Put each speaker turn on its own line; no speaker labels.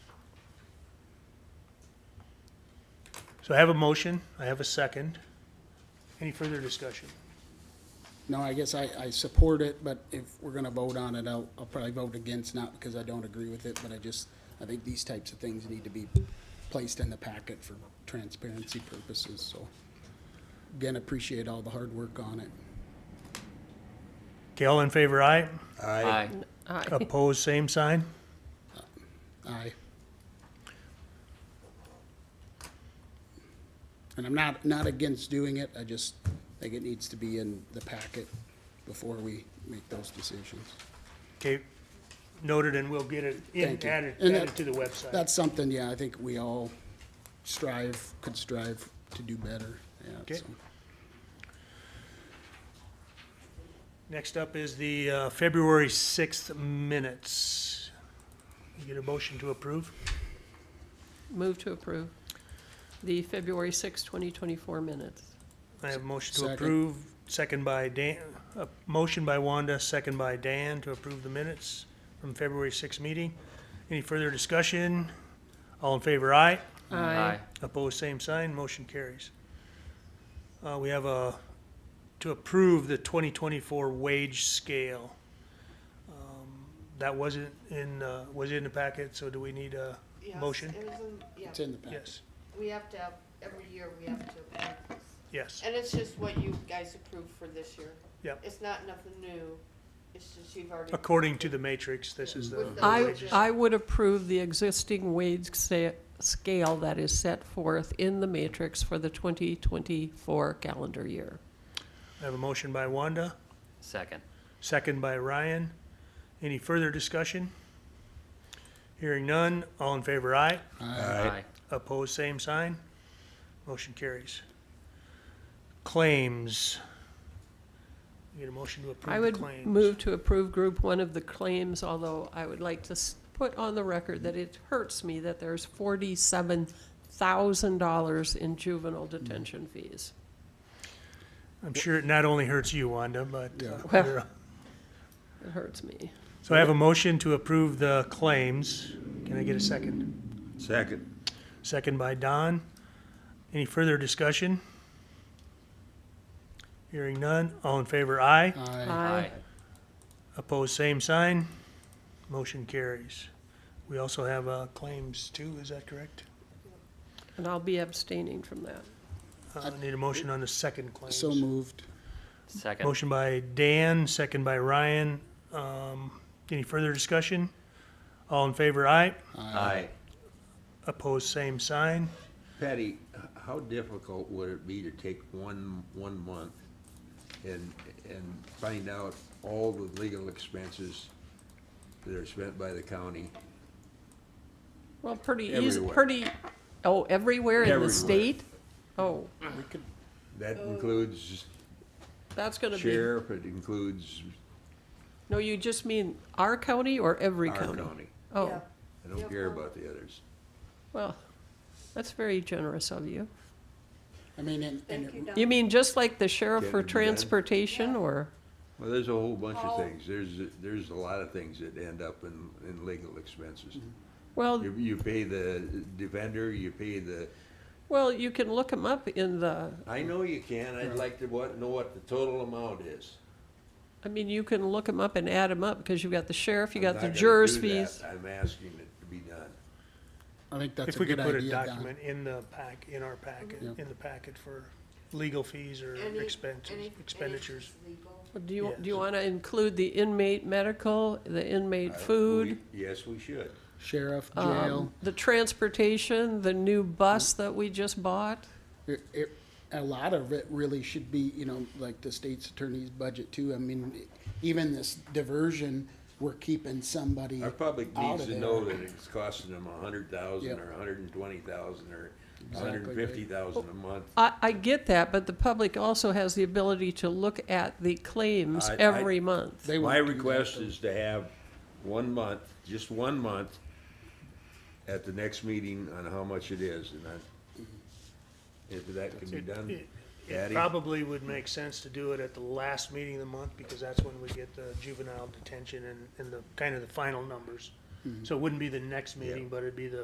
So I have a motion, I have a second. Any further discussion?
No, I guess I, I support it, but if we're gonna vote on it, I'll, I'll probably vote against, not because I don't agree with it, but I just, I think these types of things need to be placed in the packet for transparency purposes, so. Again, appreciate all the hard work on it.
Okay, all in favor, aye.
Aye.
Aye.
Opposed, same sign.
Aye. And I'm not, not against doing it, I just think it needs to be in the packet before we make those decisions.
Okay, noted, and we'll get it in-
Thank you.
added,
And
added
that-
to the website.
That's something, yeah, I think we all strive, could strive to do better, yeah,
Okay.
so.
Next up is the uh, February 6th minutes. You get a motion to approve?
Move to approve the February 6, 2024 minutes.
I have a motion to
Second.
approve, second by Dan, a motion by Wanda, second by Dan to approve the minutes from February 6th meeting. Any further discussion? All in favor, aye.
Aye.
Opposed, same sign, motion carries. Uh, we have a, to approve the twenty twenty-four wage scale. Um, That wasn't in, uh, was in the packet, so do we need a
Yes,
motion?
it was in- yeah.
It's in the packet.
Yes,
We have to, have- every year we have to approve this.
yes,
And it's just what you guys approved for this year.
Yep.
It's not nothing new, it's just you've already.
according to the matrix, this is the.
With the
I,
wages.
I would approve the existing wage sa- scale that is set forth in the matrix for the 2024 calendar year.
I have a motion by Wanda,
Second.
second by Ryan. Any further discussion? Hearing none, all in favor, aye.
Aye.
Opposed, same sign. Motion carries. Claims. You Get a motion to
I
approve the
would
claims.
move to approve Group 1 of the claims, although I would like to s- put on the record that it hurts me that there's $47,000 in juvenile detention fees.
I'm sure it not only hurts you, Wanda, but. uh,
Yeah.
Well-
you're-
It hurts me.
So I have a motion to approve the claims. Can I get a second?
Second.
Second by Don. Any further discussion? Hearing none. All in favor, aye.
Uh,
Aye.
Opposed, same sign. Motion carries. We also have uh, claims too, is that correct?
And I'll be abstaining from that.
Uh, Need a motion on the second claims.
So moved.
Second.
Motion by Dan, second by Ryan. Um, Any further discussion? All in favor, aye.
Uh,
Aye.
Opposed, same sign.
Patty, h- how difficult would it be to take one, one month and, and find out all the legal expenses that are spent by the county?
Well, pretty easy,
Everywhere.
pretty, oh, everywhere in the
Everywhere.
state? Oh,
That includes
that's gonna Oh. be,
sheriff, it includes
no, you just mean our county or every
our
county?
county.
Oh,
Yeah.
I don't care about the others.
well, that's very generous of you.
I mean, and, and
Thank
it-
you, Don.
You mean just like the sheriff
Can
for
it be done?
transportation or,
Well, there's a whole bunch
Paul-
of things. There's, there's a lot of things that end up in, in legal expenses.
Mm-hmm. well,
You, you pay the defender, you pay the
well, you can look them up in the,
I know you can, I'd like to what, know what the total amount is.
I mean, you can look them up and add them up because you've got the sheriff, you
I'm
got
not
the
gonna
jurors
do that.
fees.
I'm asking it to be done.
I think that's
If
a
we could
good
put a
idea, Don.
document in the pack, in our packet,
Mhm.
in the packet for legal fees or
Any- any-
expenses,
any
expenditures.
legal.
Do you, do you
Yes.
want to include the inmate medical, the inmate
I-
food?
we- Yes, we should.
Sheriff,
um,
jail,
The transportation, the new bus that we just bought.
it, it, a lot of it really should be, you know, like the state's attorney's budget too. I mean, even this diversion, we're keeping somebody
Our public
out
needs
of
to
there.
know that it's costing them a hundred thousand
Yep.
or a hundred and twenty thousand or a
Exactly
hundred and fifty thousand a month.
I, I get that, but the public also has the ability to look at the claims
I- I-
every month.
They
My
won't do that,
request
though.
is to have one month, just one month, at the next meeting on how much it is, and I, if that can be
It-
done,
it- It
Patty?
probably would make sense to do it at the last meeting of the month because that's when we get the
Mm-hmm.
juvenile detention and, and the, kind of the final numbers. So it wouldn't be the next meeting, but it'd be the